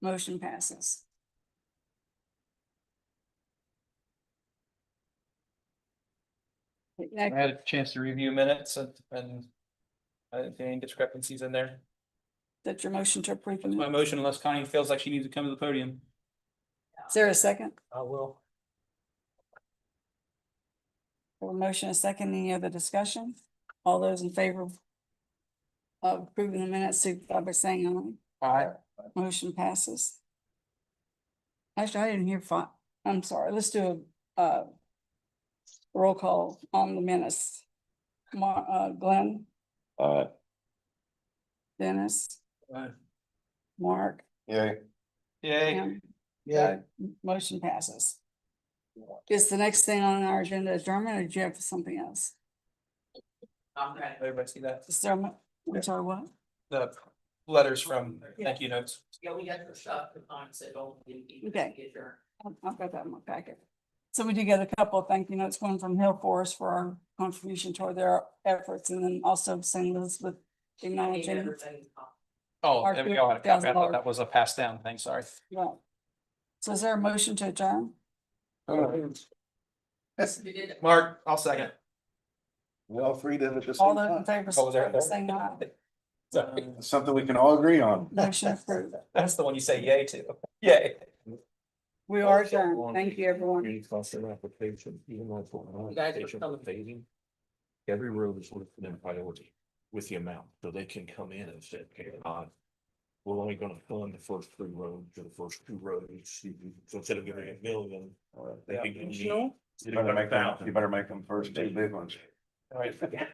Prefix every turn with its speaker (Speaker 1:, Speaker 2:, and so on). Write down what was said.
Speaker 1: Motion passes.
Speaker 2: I had a chance to review minutes and, and I didn't see any discrepancies in there.
Speaker 1: That's your motion to approve. the
Speaker 2: It's my
Speaker 1: minute.
Speaker 2: motion unless Connie feels like she needs to come to the podium.
Speaker 1: Is there a second?
Speaker 2: I will.
Speaker 1: Have A motion, a second, any other discussion? All those in favor of approving the minutes, signify by saying
Speaker 2: Aye.
Speaker 1: aye. Motion passes. Actually, I didn't hear fi- I'm sorry, let's do a, uh, roll call on the minutes. Mar- uh, Glenn,
Speaker 3: Aye.
Speaker 1: Dennis,
Speaker 2: Aye.
Speaker 1: Mark.
Speaker 3: Yay.
Speaker 2: Yay.
Speaker 1: Pam. Motion passes. Is the next thing on our agenda adjournment, or do you have something else?
Speaker 2: Everybody see that?
Speaker 1: Is there, a- I'm sorry, what?
Speaker 2: The letters from thank you notes.
Speaker 4: Yeah, we got the shop, the time, so don't. we- we- we
Speaker 1: Okay.
Speaker 4: Get your.
Speaker 1: I've- I've got that in my packet. So we did get a couple of thank you notes, one from Hill Forest for our contribution toward their efforts and then also St. Elizabeth acknowledging.
Speaker 4: Everything.
Speaker 2: Oh,
Speaker 1: Our
Speaker 2: there we go. I thought
Speaker 1: $50,000.
Speaker 2: that was a pass down thing, sorry.
Speaker 1: Right. So is there a motion to adjourn?
Speaker 4: We did.
Speaker 2: Mark, I'll second.
Speaker 3: We all three did it at the
Speaker 1: All
Speaker 3: same
Speaker 1: those in
Speaker 3: time.
Speaker 1: favor,
Speaker 2: Oh, was there a
Speaker 1: signify by
Speaker 2: third?
Speaker 1: saying aye.
Speaker 2: Sorry.
Speaker 3: Something we can all agree on.
Speaker 1: Motion approved.
Speaker 2: That's the one you say yay to. Yay.
Speaker 1: We are adjourned. Thank you, everyone.
Speaker 5: Green cluster application, even though it's
Speaker 4: You guys are
Speaker 5: on
Speaker 4: coming.
Speaker 5: phasing. Every road is listed in priority with the amount, so they can come in and say, okay, uh. We're only gonna fund the first three roads or the first two roads, so instead of giving a million.
Speaker 3: You
Speaker 5: they can give you-
Speaker 3: better make them, you better make them first two big ones.
Speaker 2: All right.